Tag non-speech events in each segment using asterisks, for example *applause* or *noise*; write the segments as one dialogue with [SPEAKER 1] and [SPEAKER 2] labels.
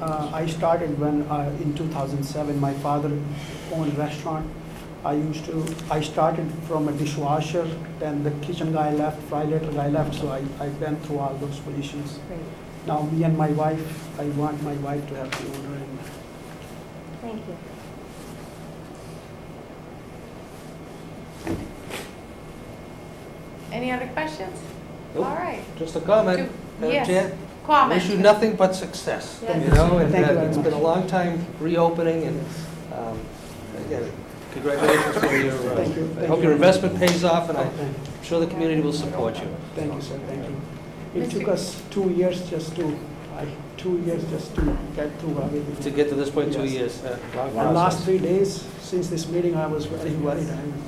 [SPEAKER 1] Uh, I started when, uh, in 2007, my father owned restaurant. I used to, I started from a dishwasher, then the kitchen guy left, fry later guy left, so I, I went through all those positions.
[SPEAKER 2] Great.
[SPEAKER 1] Now me and my wife, I want my wife to have the owner and
[SPEAKER 2] Thank you.
[SPEAKER 3] Any other questions? All
[SPEAKER 4] Nope.
[SPEAKER 3] right.
[SPEAKER 4] Just a comment,
[SPEAKER 3] Do-
[SPEAKER 4] Madam
[SPEAKER 3] yes.
[SPEAKER 4] Chair.
[SPEAKER 3] Comment.
[SPEAKER 4] Wish you nothing but success,
[SPEAKER 2] Yes.
[SPEAKER 4] you know, and
[SPEAKER 1] Thank you
[SPEAKER 4] uh,
[SPEAKER 1] very
[SPEAKER 4] it's
[SPEAKER 1] much.
[SPEAKER 4] been a long time reopening, and, um, again, congratulations for your,
[SPEAKER 1] Thank you,
[SPEAKER 4] uh, I
[SPEAKER 1] thank
[SPEAKER 4] hope
[SPEAKER 1] you.
[SPEAKER 4] your investment pays off, and I'm
[SPEAKER 1] Thank-
[SPEAKER 4] sure the community will support you.
[SPEAKER 1] Thank you, sir, thank you. It
[SPEAKER 3] Mr.
[SPEAKER 1] took us two years just to, I- two years just to get through everything.
[SPEAKER 4] To get to this point, two
[SPEAKER 1] Yes.
[SPEAKER 4] years, uh, long
[SPEAKER 1] The last
[SPEAKER 4] process.
[SPEAKER 1] three days, since this meeting, I was very worried. I'm-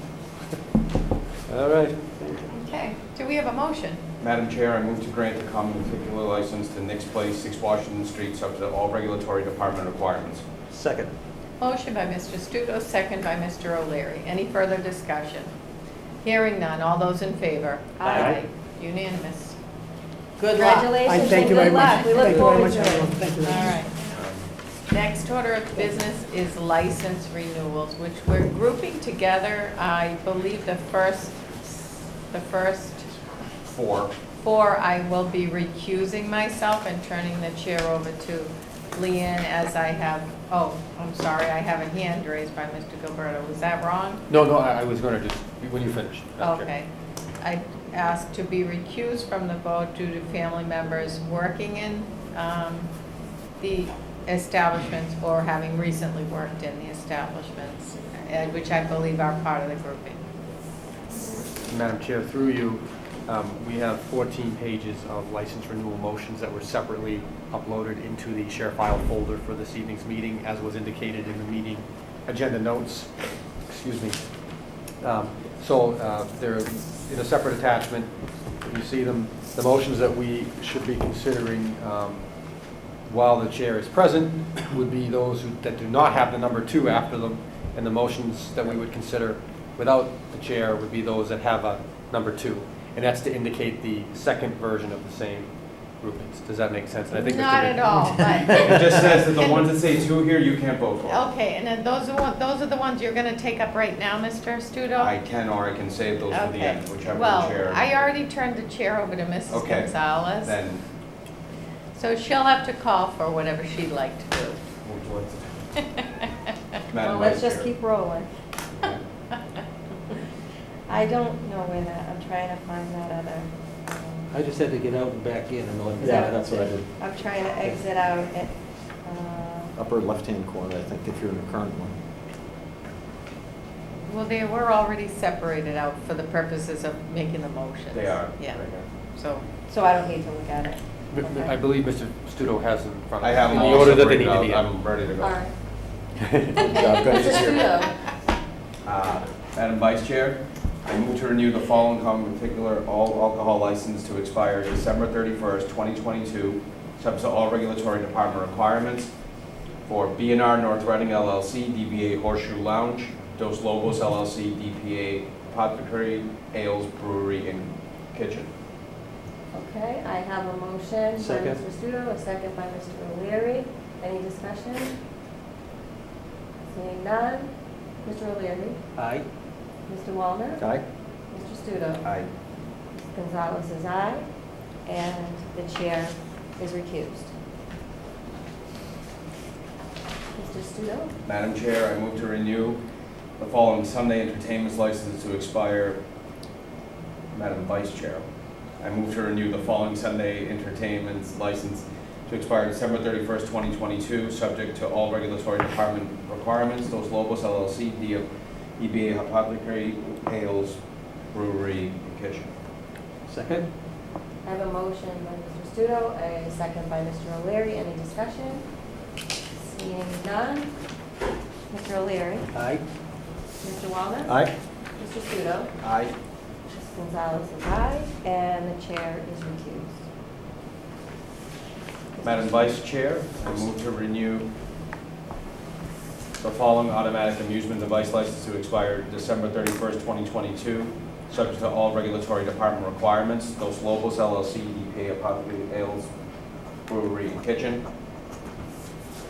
[SPEAKER 4] All right,
[SPEAKER 1] Thank you.
[SPEAKER 3] Okay, do we have a motion?
[SPEAKER 5] Madam Chair, I move to grant the common particular license to Nick's Place, 6 Washington Street, subject to all regulatory department requirements.
[SPEAKER 4] second.
[SPEAKER 3] Motion by Mr. Studo, second by Mr. O'Leary. Any further discussion? Hearing none, all those in favor?
[SPEAKER 4] Aye.
[SPEAKER 3] Unanimous. Good luck.
[SPEAKER 1] I
[SPEAKER 2] Congratulations
[SPEAKER 1] thank
[SPEAKER 2] and
[SPEAKER 1] you very
[SPEAKER 2] good
[SPEAKER 1] much.
[SPEAKER 2] luck. We look
[SPEAKER 1] Thank you very
[SPEAKER 2] forward
[SPEAKER 1] much,
[SPEAKER 2] to
[SPEAKER 1] everyone.
[SPEAKER 2] it.
[SPEAKER 1] Thank you
[SPEAKER 3] All
[SPEAKER 1] very much.
[SPEAKER 3] right. Next order of business is license renewals, which we're grouping together. I believe the first, the first
[SPEAKER 5] Four.
[SPEAKER 3] four, I will be recusing myself and turning the chair over to Leanne as I have, oh, I'm sorry, I have a hand raised by Mr. Gilberto. Was that wrong?
[SPEAKER 6] No, no, I I was going to just, when you finish. Madam Chair.
[SPEAKER 3] Okay. I asked to be recused from the vote due to family members working in um, the establishments or having recently worked in the establishments, and which I believe are part of the grouping.
[SPEAKER 6] Madam Chair, through you, um, we have 14 pages of license renewal motions that were separately uploaded into the share file folder for this evening's meeting, as was indicated in the meeting agenda notes. Excuse me. Um, So uh, they're in a separate attachment. You see them, the motions that we should be considering um, while the chair is present would be those who- that do not have the number two after them, and the motions that we would consider without the chair would be those that have a number two. And that's to indicate the second version of the same groupings. Does that make sense? And I think Mr.
[SPEAKER 3] Not
[SPEAKER 6] Vick-
[SPEAKER 3] at all,
[SPEAKER 6] *laughs*
[SPEAKER 3] but,
[SPEAKER 5] It just says that the ones that say two here, you can't vote
[SPEAKER 2] Oh.
[SPEAKER 5] for.
[SPEAKER 3] okay, and then those are, one- those are the ones you're going to take up right now, Mr. Studo?
[SPEAKER 5] I can or I can save those for the
[SPEAKER 3] Okay.
[SPEAKER 5] end, whichever the
[SPEAKER 3] Well,
[SPEAKER 5] chair.
[SPEAKER 3] I already turned the chair over to Mrs.
[SPEAKER 5] Okay.
[SPEAKER 3] Gonzalez,
[SPEAKER 5] Then,
[SPEAKER 3] so she'll have to call for whatever she'd like to do.
[SPEAKER 5] would you like to-
[SPEAKER 2] Well,
[SPEAKER 5] Madam
[SPEAKER 2] let's
[SPEAKER 5] Vice
[SPEAKER 2] just
[SPEAKER 5] Chair.
[SPEAKER 2] keep rolling. I don't know where that, I'm trying to find that other. um,
[SPEAKER 4] I just had to get out and back in and all
[SPEAKER 2] Is
[SPEAKER 4] that.
[SPEAKER 2] that- I'm trying to exit out at, uh,
[SPEAKER 7] upper left-hand corner, I think, if you're in the current one.
[SPEAKER 3] Well, they were already separated out for the purposes of making the motions.
[SPEAKER 5] They are.
[SPEAKER 3] Yeah,
[SPEAKER 5] right here.
[SPEAKER 3] so,
[SPEAKER 2] so I don't need to look at it.
[SPEAKER 6] M- m-
[SPEAKER 2] Okay.
[SPEAKER 6] I believe Mr. Studo has them in front of
[SPEAKER 5] I
[SPEAKER 6] him.
[SPEAKER 5] have them all separated out. I'm ready to
[SPEAKER 2] All
[SPEAKER 5] go.
[SPEAKER 2] right.
[SPEAKER 6] um, *laughs*
[SPEAKER 7] I've got
[SPEAKER 2] Mr. Studo.
[SPEAKER 5] Uh, Madam Vice Chair, I move to renew the following common particular all alcohol license to expire December 31st, 2022, subject to all regulatory department requirements for b and r North Reading LLC, DBA Horseshoe Lounge, Dos Lobos LLC, DPA Apothecary Ales Brewery and Kitchen.
[SPEAKER 2] Okay, I have a motion by
[SPEAKER 4] Second.
[SPEAKER 2] Mr. Studo, a second by Mr. O'Leary. Any discussion? Seeing none. Mr. O'Leary,
[SPEAKER 4] Aye.
[SPEAKER 2] Mr. Walner,
[SPEAKER 7] Aye?
[SPEAKER 2] Mr. Studo.
[SPEAKER 5] Aye.
[SPEAKER 2] Gonzalez is aye, and the chair is recused. Mr. Studo?
[SPEAKER 5] Madam Chair, I move to renew the following Sunday entertainment's license to expire. Madam Vice Chair, I move to renew the following Sunday entertainment's license to expire December thirty-first, twenty twenty-two, subject to all regulatory department requirements. Those Lobos LLC, D- DBA Apothecary Ales Brewery and Kitchen.
[SPEAKER 4] Second?
[SPEAKER 2] I have a motion by Mr. Studo, a second by Mr. O'Leary. Any discussion? Seeing none. Mr. O'Leary,
[SPEAKER 4] Aye.
[SPEAKER 2] Mr. Walner,
[SPEAKER 7] Aye?
[SPEAKER 2] Mr. Studo.
[SPEAKER 5] Aye.
[SPEAKER 2] Ms. Gonzalez is aye, and the chair is recused.
[SPEAKER 5] Madam Vice Chair, I move to renew the following automatic amusement device license to expire December 31st, 2022, subject to all regulatory E department requirements. Those Lobos LLC, DBA Apothecary Ales Brewery and Kitchen.